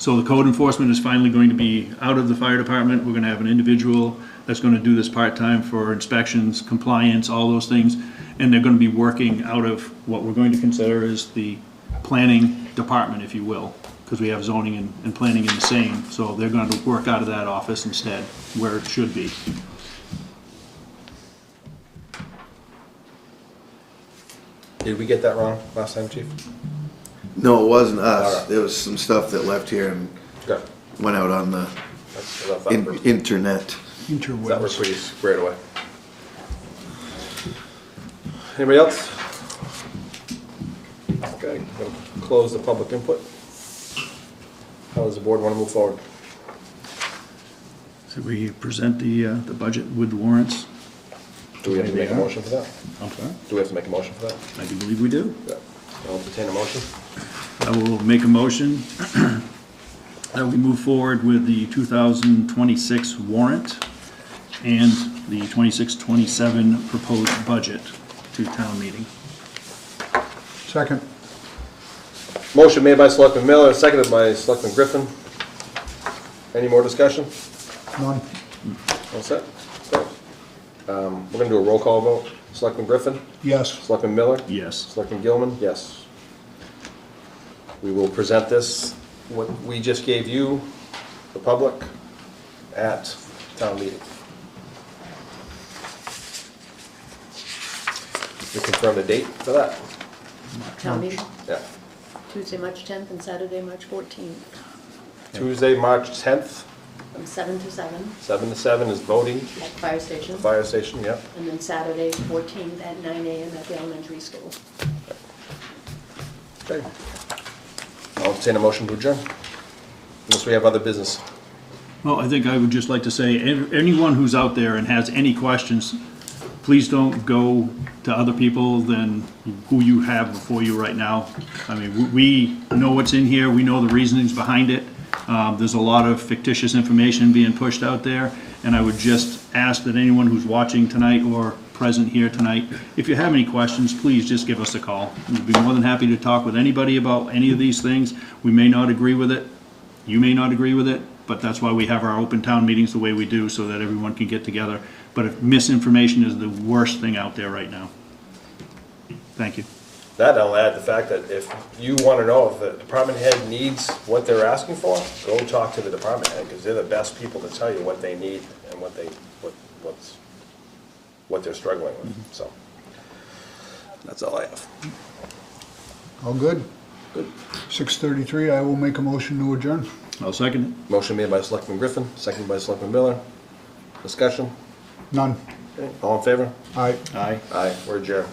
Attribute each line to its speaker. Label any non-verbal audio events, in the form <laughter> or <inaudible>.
Speaker 1: So the code enforcement is finally going to be out of the fire department. We're gonna have an individual that's gonna do this part-time for inspections, compliance, all those things. And they're gonna be working out of what we're going to consider is the planning department, if you will, because we have zoning and, and planning in the same. So they're going to work out of that office instead, where it should be.
Speaker 2: Did we get that wrong last time, chief?
Speaker 3: No, it wasn't us.
Speaker 2: Alright.
Speaker 3: There was some stuff that left here and
Speaker 2: Okay.
Speaker 3: went out on the
Speaker 2: That's- I thought that
Speaker 3: in-
Speaker 2: was-
Speaker 3: internet.
Speaker 2: That was pretty squared away. Anybody else? Okay, gonna close the public input. How does the board wanna move forward?
Speaker 1: So we present the, uh, the budget with warrants.
Speaker 2: Do we have to make a motion for that?
Speaker 1: I'm sorry?
Speaker 2: Do we have to make a motion for that?
Speaker 1: I do believe we do.
Speaker 2: Yeah. I'll entertain a motion.
Speaker 1: I will make a motion <clears throat> that we move forward with the 2026 warrant and the 26-27 proposed budget to town meeting.
Speaker 4: Second.
Speaker 2: Motion made by Selectman Miller, seconded by Selectman Griffin. Any more discussion?
Speaker 4: None.
Speaker 2: All set? Okay. Um, we're gonna do a roll call vote. Selectman Griffin?
Speaker 4: Yes.
Speaker 2: Selectman Miller?
Speaker 1: Yes.
Speaker 2: Selectman Gilman? Yes. We will present this, what we just gave you, the public, at town meeting. We confirm the date for that?
Speaker 5: Town meeting,
Speaker 2: Yeah.
Speaker 5: Tuesday, March 10th, and Saturday, March 14th,
Speaker 2: Tuesday, March 10th,
Speaker 5: from 7 to 7
Speaker 2: 7 to 7 is voting,
Speaker 5: at fire station,
Speaker 2: fire station, yep.
Speaker 5: and then Saturday, 14th, at 9 AM at the elementary school.
Speaker 2: Okay. I'll entertain a motion to adjourn, unless we have other business.
Speaker 1: Well, I think I would just like to say, an- anyone who's out there and has any questions, please don't go to other people than who you have before you right now. I mean, w- we know what's in here, we know the reasonings behind it. Um, There's a lot of fictitious information being pushed out there, and I would just ask that anyone who's watching tonight or present here tonight, if you have any questions, please just give us a call. We'd be more than happy to talk with anybody about any of these things. We may not agree with it, you may not agree with it, but that's why we have our open town meetings the way we do, so that everyone can get together. But if misinformation is the worst thing out there right now. Thank you.
Speaker 2: That, I'll add the fact that if you want to know if the department head needs what they're asking for, go talk to the department head, because they're the best people to tell you what they need and what they, what, what's, what they're struggling with, so. Mm-hmm. That's all I have.
Speaker 4: All good?
Speaker 2: Good.
Speaker 4: 6:33, I will make a motion to adjourn.
Speaker 1: I'll second
Speaker 2: Motion made by Selectman Griffin, seconded by Selectman Miller. Discussion?
Speaker 4: None.
Speaker 2: All in favor?
Speaker 4: Aye.
Speaker 1: it. Aye.
Speaker 2: Aye. We're adjourned.